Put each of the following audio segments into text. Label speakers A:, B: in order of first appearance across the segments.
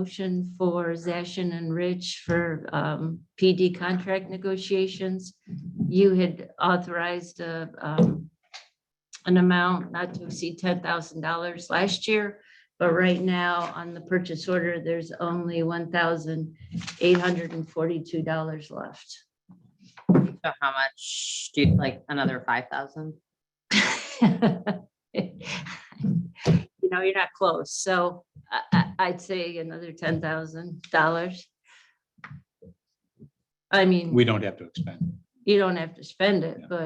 A: motion for Zashin and Rich for um, PD contract negotiations. You had authorized a, um, an amount not to exceed ten thousand dollars last year. But right now, on the purchase order, there's only one thousand eight hundred and forty-two dollars left.
B: So how much do you, like, another five thousand?
A: You know, you're not close, so I, I, I'd say another ten thousand dollars. I mean,
C: We don't have to expend.
A: you don't have to spend it,
C: Yeah.
A: but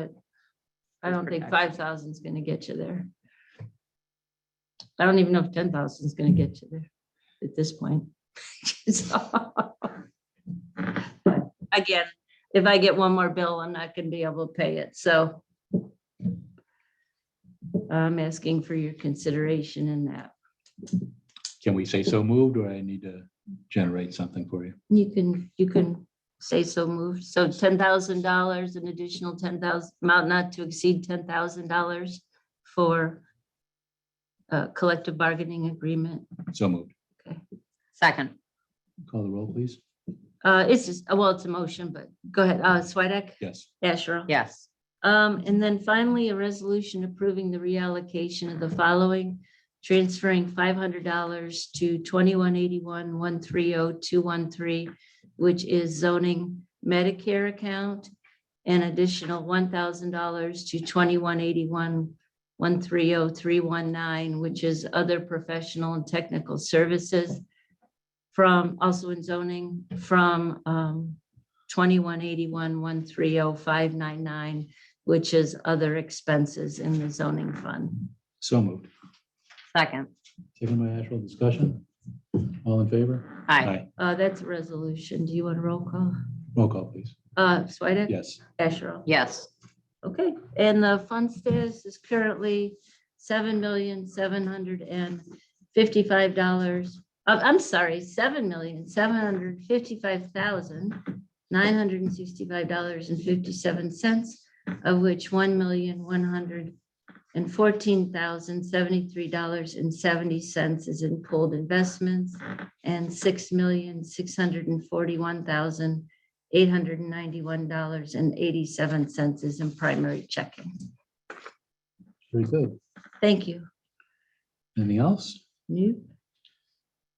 A: I
B: It's
A: don't think
B: protection.
A: five thousand is gonna get you there. I don't even know if ten thousand is gonna get you there at this point. So- But Again, if I get one more bill, I'm not gonna be able to pay it, so I'm asking for your consideration in that.
C: Can we say so moved or I need to generate something for you?
A: You can, you can say so moved. So ten thousand dollars, an additional ten thousand, amount not to exceed ten thousand dollars for uh, collective bargaining agreement.
C: So moved.
B: Second,
C: Call the roll, please.
A: Uh, it's just, well, it's a motion, but go ahead. Uh, Swedek,
C: Yes.
A: Asherle.
B: yes,
A: Um, and then finally, a resolution approving the reallocation of the following, transferring five hundred dollars to twenty-one eighty-one, one three oh, two one three, which is zoning Medicare account, an additional one thousand dollars to twenty-one eighty-one, one three oh, three one nine, which is other professional and technical services from, also in zoning, from, um, twenty-one eighty-one, one three oh, five nine nine, which is other expenses in the zoning fund.
C: So moved.
B: second,
C: Second by Asherle, discussion. All in favor?
B: aye,
A: Uh, that's a resolution. Do you want a roll call?
C: Roll call, please.
A: Uh, Swedek?
C: Yes.
A: Asherle?
B: yes,
A: Okay, and the fund status is currently seven million, seven hundred and fifty-five dollars. Uh, I'm sorry, seven million, seven hundred fifty-five thousand, nine hundred and sixty-five dollars and fifty-seven cents, of which one million, one hundred and fourteen thousand, seventy-three dollars and seventy cents is in pooled investments, and six million, six hundred and forty-one thousand, eight hundred and ninety-one dollars and eighty-seven cents is in primary checking.
C: Very good.
A: Thank you.
C: Anything else?
A: New,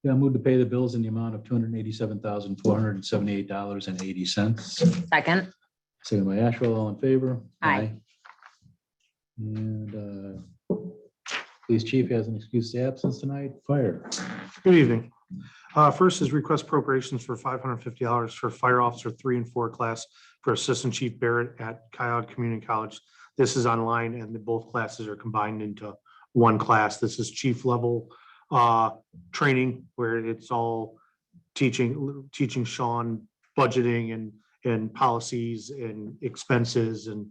C: Yeah, move to pay the bills in the amount of two hundred and eighty-seven thousand, four hundred and seventy-eight dollars and eighty cents.
B: second,
C: Second by Asherle, all in favor?
B: Aye.
C: And uh, police chief has an excuse to absence tonight. Fire.
D: Good evening. Uh, First is request appropriations for five hundred and fifty dollars for fire officer three and four class for Assistant Chief Barrett at Coyote Community College. This is online and the both classes are combined into one class. This is chief level uh, training where it's all teaching, teaching Sean budgeting and, and policies and expenses and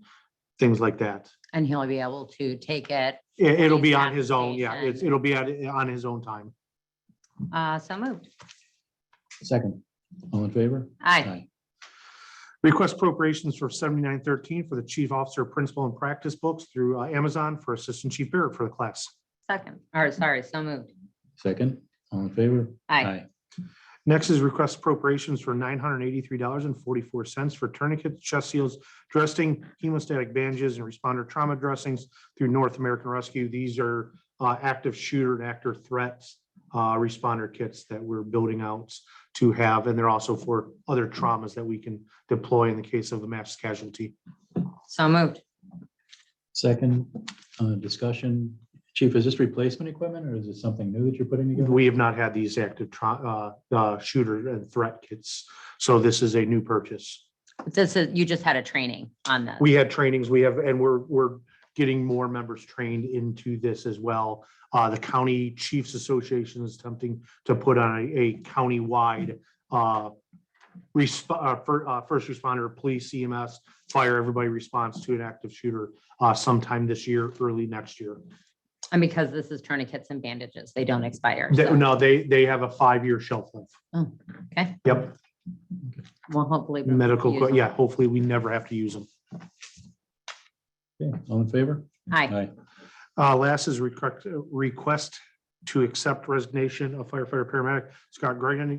D: things like that.
B: and he'll be able to take it,
D: It- It'll be
B: Police
D: on his own, yeah, it's-
B: application.
D: it'll be on on his own time.
B: uh, so moved,
C: Second. All in favor?
B: aye,
D: Request appropriations for seventy-nine thirteen for the chief officer principal and practice books through uh, Amazon for assistant chief Barrett for the class.
B: second, or sorry, so moved,
C: Second, all in favor?
B: aye,
D: Next is request appropriations for nine hundred eighty-three dollars and forty-four cents for tourniquets, chest seals, dressing, hemostatic bandages, and responder trauma dressings through North American Rescue. These are uh, active shooter and actor threats uh, responder kits that we're building out to have, and they're also for other traumas that we can deploy in the case of a mass casualty.
B: so moved,
C: Second, uh, discussion. Chief, is this replacement equipment or is it something new that you're putting together?
D: We have not had these active tra- uh, uh, shooter and threat kits, so this is a new purchase.
B: this is, you just had a training on this,
D: We had trainings, we have, and we're, we're getting more members trained into this as well. Uh, the County Chiefs Association is attempting to put on a, a countywide, uh, resp- uh, fir- uh, first responder, police, CMS, fire, everybody responds to an active shooter, uh, sometime this year, early next year.
B: and because this is tourniquets and bandages, they don't expire,
D: They-
B: so,
D: No, they, they have a five-year shelf life.
B: okay,
D: Yep,
B: well, hopefully. we'll
D: medical,
B: use
D: co-
B: them.
D: yeah, hopefully we never have to use them.
C: Okay, All in favor?
B: Aye,
D: Uh, last is request, request to accept resignation of firefighter paramedic Scott Gregan